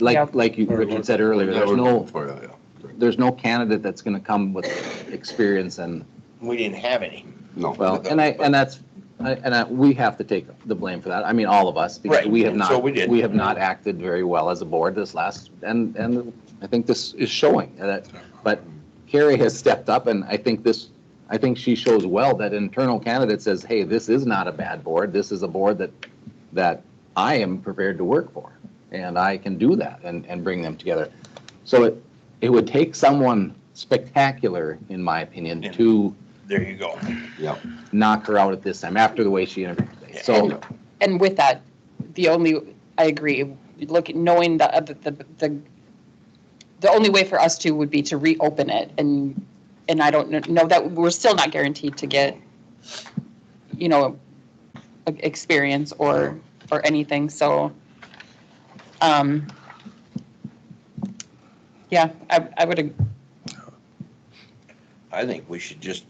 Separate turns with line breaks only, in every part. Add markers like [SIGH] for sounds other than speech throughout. Yeah.
like, like you,
Or-
Richard said earlier, there's no,
For, yeah.
there's no candidate that's gonna come with experience and,
We didn't have any.
No.
well,
[LAUGHS]
and I, and that's, I- and I, we have to take the blame for that. I mean, all of us, because
Right.
we have
So
not,
we did.
we have not acted very well as a board this last, and, and I think this is showing that, but Carrie has stepped up and I think this, I think she shows well that internal candidate says, hey, this is not a bad board. This is a board that, that I am prepared to work for. And I can do that and, and bring them together. So it, it would take someone spectacular, in my opinion,
Yeah.
to
There you go.
[LAUGHS] Yeah,
knock her out at this time after the way she interviewed today. So,
And-
And with that, the only, I agree, look, knowing the, uh, the, the- the, the only way for us to would be to reopen it and, and I don't kn- know that, we're still not guaranteed to get, you know, e- experience or, or anything, so. um Yeah, I, I would ag-
I think we should just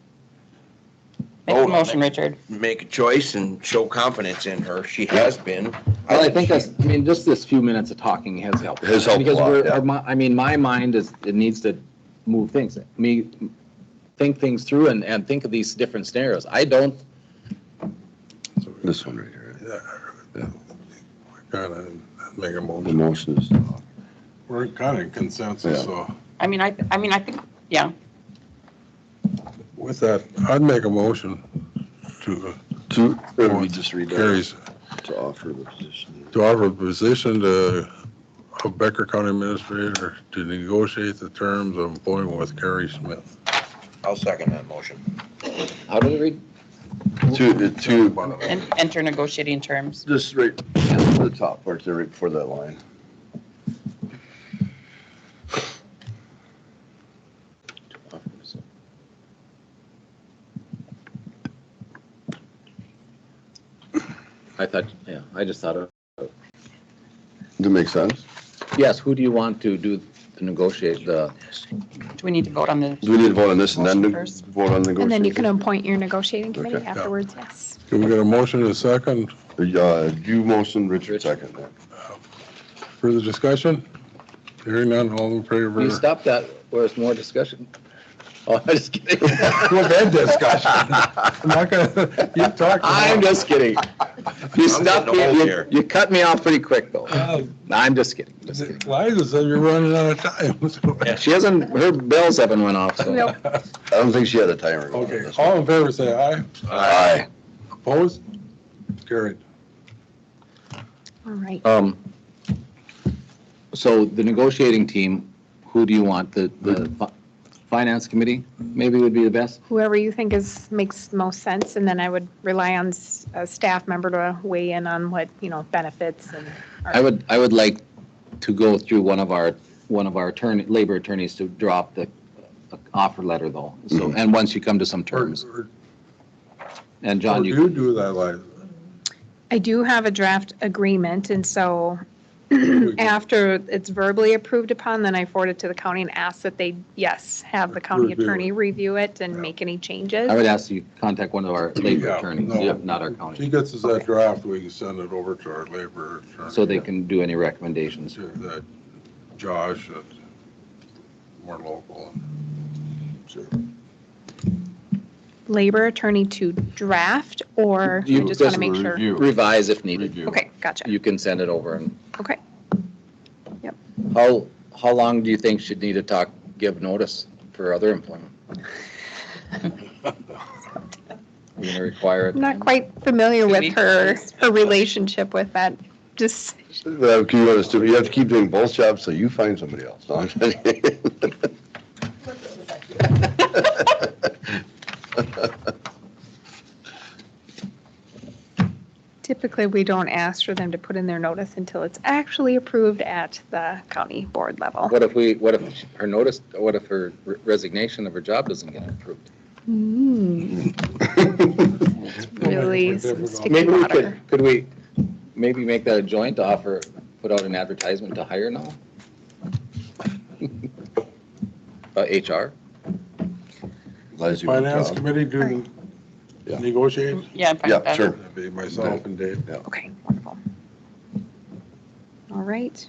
make
Vote
a
on
motion,
it.
Richard.
make a choice and show confidence in her. She has been.
well, I think that's, I mean, just this few minutes of talking has helped.
Has helped a
Because
lot,
we're-
yeah.
our mi- I mean, my mind is, it needs to move things, me, think things through and, and think of these different scenarios. I don't,
this one right here,
Kind of make a
the
motion.
motion is,
We're kind of consensus,
Yeah.
so
I mean, I, I mean, I think, yeah,
with that, I'd make a motion to
to,
Or we
just read
Carrie's,
To offer the position.
to offer a position to a Becker County Administrator to negotiate the terms of employment with Carrie Smith.
I'll second that motion.
how did it read?
To, to,
and enter negotiating terms.
just right, the top part there, right before that line.
I thought, yeah, I just thought of,
That makes sense?
yes, who do you want to do, to negotiate the,
Do we need to vote on the?
Do we need to vote on this and then
Motion
to
first.
vote on the negotiation?
And then you can appoint your negotiating
Okay.
committee
Yeah.
afterwards, yes.
Can we get a motion in a second?
Uh, you motion, Richard second.
Further discussion? Hearing none, all in favor?
you stop that, where's more discussion? [LAUGHS] Oh, I'm just kidding.
We've
[LAUGHS]
had discussion. I'm not gonna,
[LAUGHS]
you talked.
I'm just kidding. You stopped, me-
old
you,
here.
you cut me off pretty quick though. I'm just kidding. just kidding.
Liza said you're running out of time. [LAUGHS] so-
She hasn't, her bells haven't went off, so.
Nope.
I don't think she had a timer. on
Okay,
this one.
all in favor, say aye.
Aye.
Opposed? Carried.
All right.
Um, so the negotiating team, who do you want? The, the fi- finance committee maybe would be the best?
Whoever you think is, makes most sense, and then I would rely on s- a staff member to weigh in on what, you know, benefits and.
I would, I would like to go through one of our, one of our attorney, labor attorneys to drop the uh, offer letter though. So, and once you come to some
Or-
terms,
or-
and
or
John, you.
You do that, Liza.
I do have a draft agreement, and so [CLEARS THROAT]
We can-
after it's verbally approved upon, then I forward it to the county and ask that they, yes, have the county
Review it.
attorney review it and
Yeah.
make any changes.
I would ask you contact one of our labor
Yeah,
attorneys,
no.
yeah, not our
She
county,
gets us that draft, we can send it over to our labor attorney.
so they can do any recommendations.
To that Josh, that's more local.
Labor attorney to draft, or I
You-
just want to make sure.
Review.
Revise if needed.
Review.
Okay, gotcha.
You can send it over and
Okay.
How, how long do you think she'd need to talk, give notice for other [LAUGHS] employment? You're gonna require it?
I'm not quite familiar
Two
with
weeks.
her, her relationship with that, just,
Well, can you understand, you have to keep doing both jobs so you find somebody else. No, I'm just kidding. [LAUGHS]
typically, we don't ask for them to put in their notice until it's actually approved at the county board level.
What if we, what if her notice, what if her resignation of her job doesn't get approved?
Hmm, Really sticky
Maybe we could,
water.
could we, maybe make that a joint offer, put out an advertisement to hire now? [LAUGHS] Uh, HR?
Liza, you
Finance
talk.
committee do
Yeah.
negotiate?
Yeah, I'm fine with
Yeah,
that.
sure.
That'd be myself and Dave.
Okay, wonderful. All right,